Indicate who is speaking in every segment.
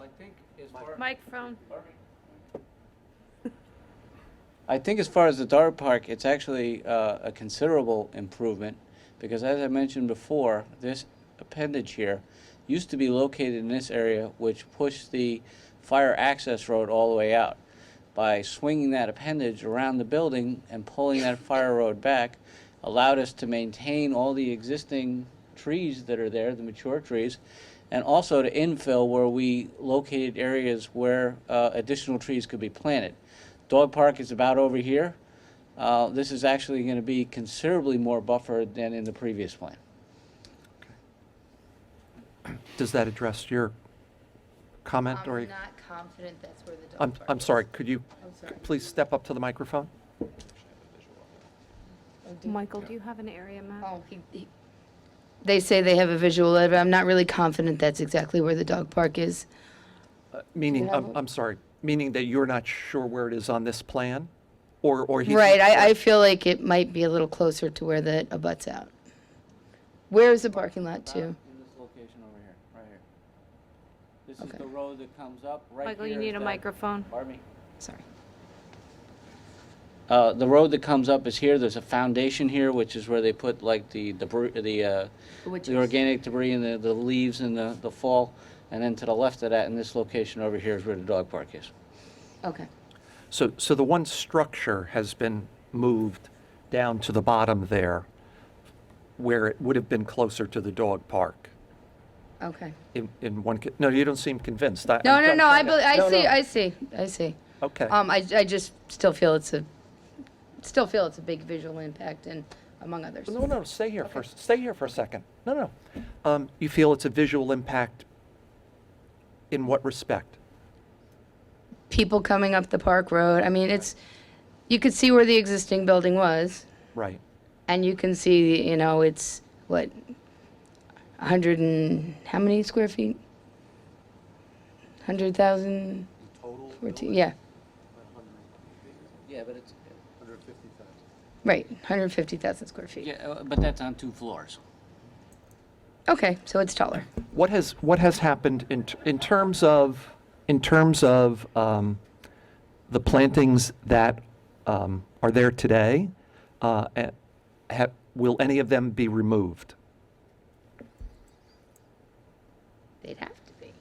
Speaker 1: I think as far,
Speaker 2: Microphone.
Speaker 3: I think as far as the dog park, it's actually uh, a considerable improvement because, as I mentioned before, this appendage here used to be located in this area, which pushed the fire access road all the way out. By swinging that appendage around the building and pulling that fire road back, allowed us to maintain all the existing trees that are there, the mature trees, and also to infill where we located areas where uh, additional trees could be planted. Dog Park is about over here. Uh, This is actually going to be considerably more buffered than in the previous plan.
Speaker 4: Does that address your comment or?
Speaker 5: I'm not confident that's where the dog
Speaker 4: I'm,
Speaker 5: park
Speaker 4: I'm
Speaker 5: is.
Speaker 4: sorry, could you
Speaker 5: I'm sorry.
Speaker 4: please step up to the microphone?
Speaker 5: Oh, do-
Speaker 2: Michael, do you have an area map?
Speaker 5: oh, he- he- They say they have a visual, of it. I'm not really confident that's exactly where the dog park is.
Speaker 4: Uh, Meaning,
Speaker 5: you have
Speaker 4: I'm,
Speaker 5: one?
Speaker 4: I'm sorry, meaning that you're not sure where it is on this plan? Or, or he's.
Speaker 5: Right, I, I feel like it might be a little closer to where that abuts out. Where is the parking lot to?
Speaker 3: In this location over here, right here. This
Speaker 5: Okay.
Speaker 3: is the road that comes up, right
Speaker 2: Michael, you
Speaker 3: here is
Speaker 2: need a
Speaker 3: that-
Speaker 2: microphone.
Speaker 3: Pardon me.
Speaker 5: Sorry.
Speaker 3: Uh, The road that comes up is here. There's a foundation here, which is where they put like the debris, the, uh,
Speaker 5: Which
Speaker 3: the
Speaker 5: is-
Speaker 3: organic debris and the, the leaves and the, the fall. And then to the left of that, in this location over here is where the dog park is.
Speaker 5: Okay.
Speaker 4: So, so the one structure has been moved down to the bottom there, where it would have been closer to the dog park.
Speaker 5: Okay.
Speaker 4: In, in one, co- no, you don't seem convinced. I-
Speaker 5: No,
Speaker 4: I'm
Speaker 5: no,
Speaker 4: trying-
Speaker 5: no, I,
Speaker 4: trying to-
Speaker 5: bel- I
Speaker 4: No,
Speaker 5: see,
Speaker 4: no.
Speaker 5: I see, I see.
Speaker 4: Okay.
Speaker 5: Um, I, I just still feel it's a, still feel it's a big visual impact and among others.
Speaker 4: No, no, stay here for, stay here for a second. No, no. Um, you feel it's a visual impact in what respect?
Speaker 5: people coming up the park road. I mean, it's, you could see where the existing building was,
Speaker 4: Right.
Speaker 5: and you can see, you know, it's, what, 100 and, how many square feet? 100,000,
Speaker 1: total
Speaker 5: 14, yeah,
Speaker 3: Yeah, but it's,
Speaker 1: hundred fifty thousand.
Speaker 5: right, 150,000 square feet.
Speaker 3: yeah, uh, but that's on two floors.
Speaker 5: Okay, so it's taller.
Speaker 4: What has, what has happened in, t- in terms of, in terms of um, the plantings that um, are there today? Uh, eh, ha- will any of them be removed?
Speaker 5: They'd have to be.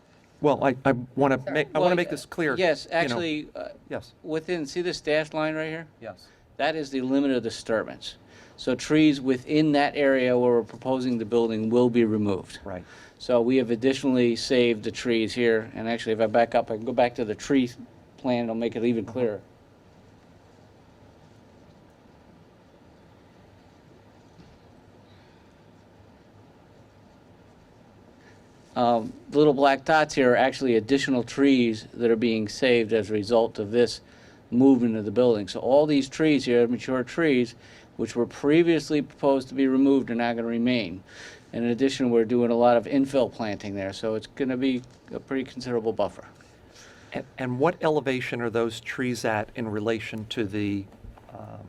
Speaker 4: Well, I, I want to make, I want
Speaker 3: Well,
Speaker 4: to make this clear.
Speaker 3: Yes,
Speaker 4: you know.
Speaker 3: actually, uh,
Speaker 4: Yes.
Speaker 3: within, see this dashed line right here?
Speaker 4: Yes.
Speaker 3: That is the limit of disturbance. So trees within that area where we're proposing the building will be removed.
Speaker 4: Right.
Speaker 3: So we have additionally saved the trees here, and actually, if I back up, I can go back to the tree plan, it'll make it even clearer. Um, The little black dots here are actually additional trees that are being saved as a result of this movement of the building. So all these trees here, mature trees, which were previously proposed to be removed, are now going to remain. In addition, we're doing a lot of infill planting there, so it's going to be a pretty considerable buffer.
Speaker 4: And, and what elevation are those trees at in relation to the um,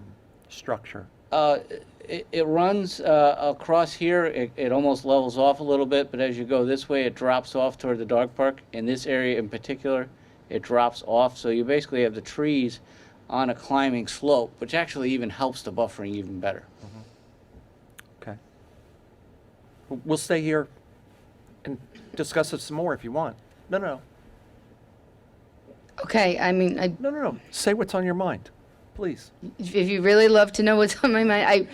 Speaker 4: structure?
Speaker 3: Uh, It it runs uh, across here, it it almost levels off a little bit, but as you go this way, it drops off toward the dog park. In this area in particular, it drops off, so you basically have the trees on a climbing slope, which actually even helps the buffering even better.
Speaker 4: Okay. W- We'll stay here and discuss it some more if you want. No, no,
Speaker 5: Okay, I mean, I,
Speaker 4: no, no, no. Say what's on your mind, please.
Speaker 5: if if you really love to know what's on my mind, I,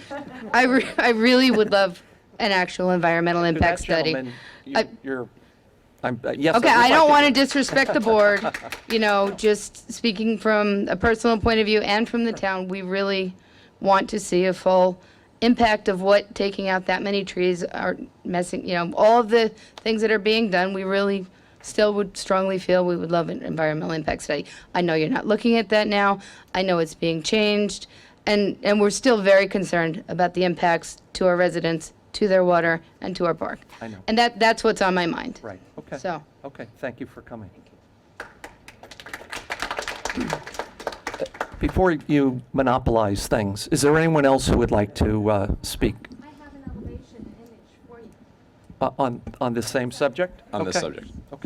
Speaker 5: I, re- I really would love an actual environmental
Speaker 4: To
Speaker 5: impact
Speaker 4: that
Speaker 5: study.
Speaker 4: gentleman, you-
Speaker 5: I-
Speaker 4: You're, I'm, uh, yes.
Speaker 5: Okay, I don't want to
Speaker 4: do.
Speaker 5: disrespect the board, you know, just speaking from a personal point of view and from the town, we really want to see a full impact of what taking out that many trees are messing, you know, all of the things that are being done, we really still would strongly feel we would love an environmental impact study. I know you're not looking at that now, I know it's being changed, and, and we're still very concerned about the impacts to our residents, to their water, and to our park.
Speaker 4: I know.
Speaker 5: And that, that's what's on my mind.
Speaker 4: Right, okay.
Speaker 5: So.
Speaker 4: Okay, thank you for coming. Before you monopolize things, is there anyone else who would like to uh, speak
Speaker 6: I have an elevation image for you.
Speaker 4: uh, on, on this same subject?
Speaker 7: On this
Speaker 4: Okay.
Speaker 7: subject.